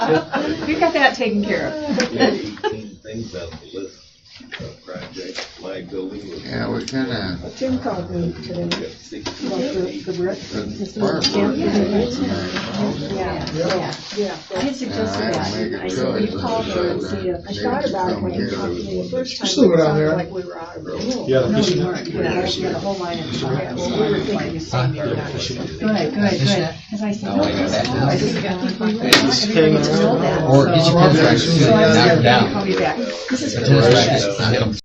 We've got that taken care of. We had eighteen things on the list of projects, my building was. Yeah, we kinda, Tim called me today we got 60, about the, the brick. far from Yeah. Yeah, Yeah. yeah. I had suggested Yeah, that. I make I it said, will you really call her and good. see if. I thought about it when you talked to me the first time. Still go down it there. sounded Like we were out of room. Yeah, No, this you is- weren't. Yeah, she had a whole line of. Yeah, well, we were thinking the same thing. Good, good, good. As I said, oh, I guess, oh, I didn't get to find out. Everybody needs to know that. Or get your So- contractors to So I was knock gonna have them down. to call you back. This is. Tennis rackets, knock 'em